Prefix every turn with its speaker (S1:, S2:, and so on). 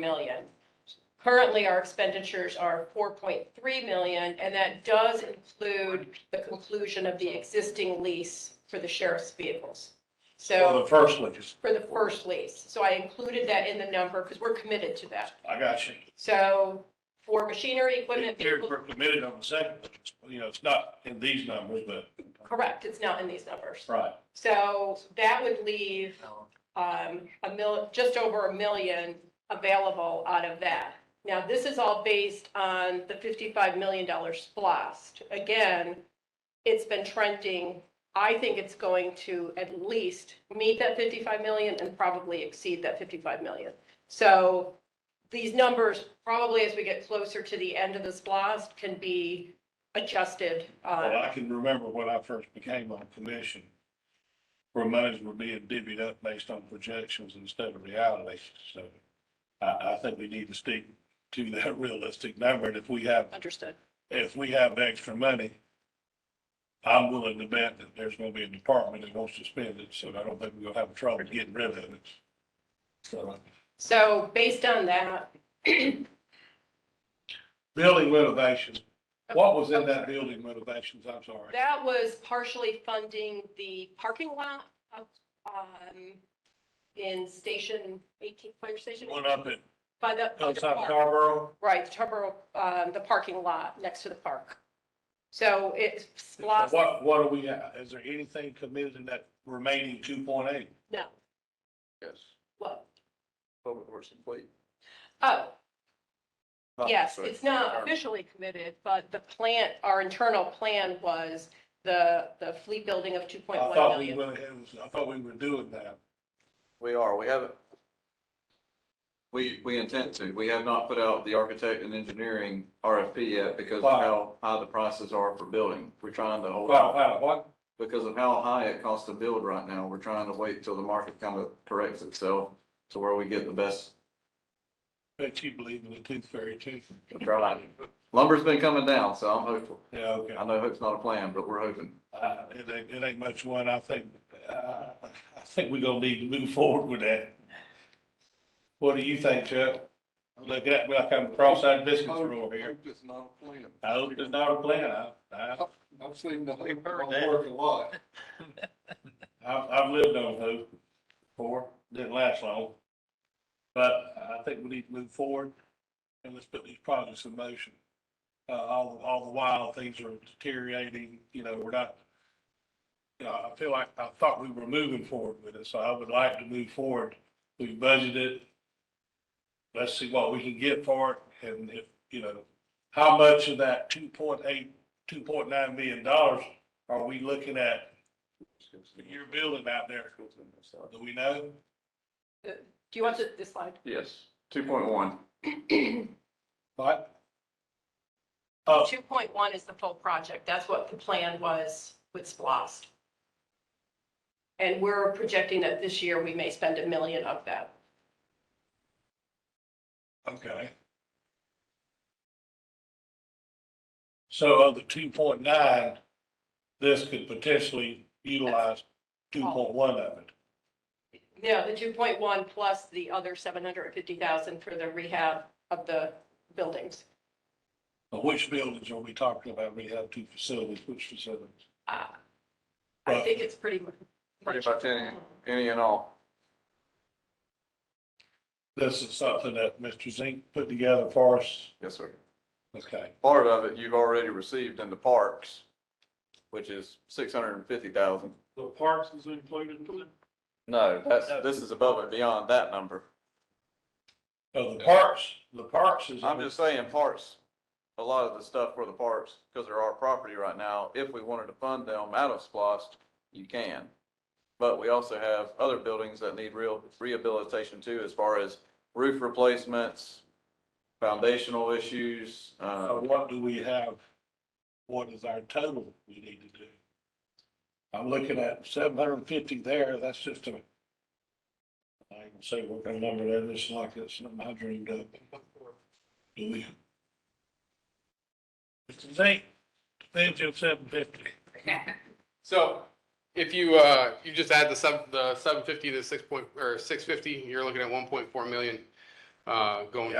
S1: million. Currently, our expenditures are four point three million, and that does include the conclusion of the existing lease for the sheriff's vehicles.
S2: Well,
S1: So
S2: the first lease,
S1: for the first lease, so I included that in the number because we're committed to that.
S2: I got you.
S1: So for machinery, equipment,
S2: Here,
S1: vehicles,
S2: We're committed on the second, lease. you know, it's not in these numbers, but,
S1: correct, it's not in these numbers.
S2: right.
S1: So that would leave um, a mil, just over a million available out of that. Now, this is all based on the fifty-five million dollar splost. Again, it's been trending. I think it's going to at least meet that fifty-five million and probably exceed that fifty-five million. So these numbers, probably as we get closer to the end of the splost, can be adjusted.
S2: Well,
S1: uh,
S2: I can remember when I first became on commission, where monies were being divvied up based on projections instead of reality. So I, I think we need to stick to that realistic number. And if we have,
S1: Understood.
S2: if we have extra money, I'm willing to bet that there's going to be a department that wants to spend it. So I don't think we're going to have trouble getting rid of it. So
S1: So based on that,
S2: building renovations, what was in that building renovations? I'm sorry.
S1: That was partially funding the parking lot up, um, in station eighteen, fire station,
S2: One up at
S1: by the, by the
S2: outside of
S1: park.
S2: Carborough.
S1: right, Tarboro, um, the parking lot next to the park. So it's splosh,
S2: What, what do we, have? is there anything committed in that remaining two point eight?
S1: no,
S3: Yes,
S1: what,
S3: public works and fleet.
S1: oh,
S2: Oh,
S1: yes,
S3: Sorry.
S1: it's not officially committed, but the plant, our internal plan was the, the fleet building of two
S2: I
S1: point one
S2: thought we
S1: million.
S2: went ahead, and- I thought we were doing that.
S3: We are, we haven't. We, we intend to. We have not put out the architect and engineering RFP yet because of
S2: Why?
S3: how high the prices are for building. We're trying to hold
S2: Wow,
S3: out.
S2: wow, what?
S3: Because of how high it costs to build right now, we're trying to wait till the market kind of corrects itself to where we get the best.
S2: Bet you believe in the tooth fairy too.
S3: price. Lumber's been coming down, so I'm hopeful.
S2: Yeah, okay.
S3: I know hope's not a plan, but we're hoping.
S2: Uh, it ain't, it ain't much one, I think, uh, I think we are gonna need to move forward with that. What do you think, Chuck? Look at, me like I'm cross-eyed business over here.
S4: Hope is not a plan.
S2: I hope it's not a plan, I, I,
S4: I've seen the hope not
S2: that.
S4: work a lot.
S2: I've, I've lived on hope before, didn't last long. But I think we need to move forward and let's put these projects in motion. Uh, all, all the while, things are deteriorating, you know, we're not, you know, I feel like, I thought we were moving forward with it, so I would like to move forward. We budgeted. Let's see what we can get for it and if, you know, how much of that two point eight, two point nine million dollars are we looking at your building out there, do we know?
S1: Do you want the- this slide?
S3: Yes, two point one.
S2: What? Oh,
S1: Two point one is the full project. That's what the plan was with Splost. And we're projecting that this year we may spend a million of that.
S2: okay. So of the two point nine, this could potentially utilize two point one of it.
S1: No, the two point one plus the other seven hundred and fifty thousand for the rehab of the buildings.
S2: But which buildings are we talking about? We have two facilities, which facilities?
S1: Uh, I think it's pretty much.
S3: Pretty much any, any and all.
S2: This is something that Mr. Zink put together for us.
S3: Yes, sir.
S2: Okay,
S3: Part of it you've already received in the parks, which is six hundred and fifty thousand.
S4: The parks is included in it?
S3: No, that's, this is above and beyond that number.
S2: so Oh, the parks, the parks is.
S3: I'm just saying parks, a lot of the stuff for the parks, because they're our property right now, if we wanted to fund them out of SPOS, you can. But we also have other buildings that need real rehabilitation too, as far as roof replacements, foundational issues, uh,
S2: Uh, what do we have? What is our total we need to do? I'm looking at seven hundred and fifty there, that's just a. I can say what kind of number that is, like it's something I dreamed up. Do we? Mr. Zink, defend your seven fifty.
S5: So if you, uh, you just add the seven, the seven fifty to six point, or six fifty, you're looking at one point four million. uh, going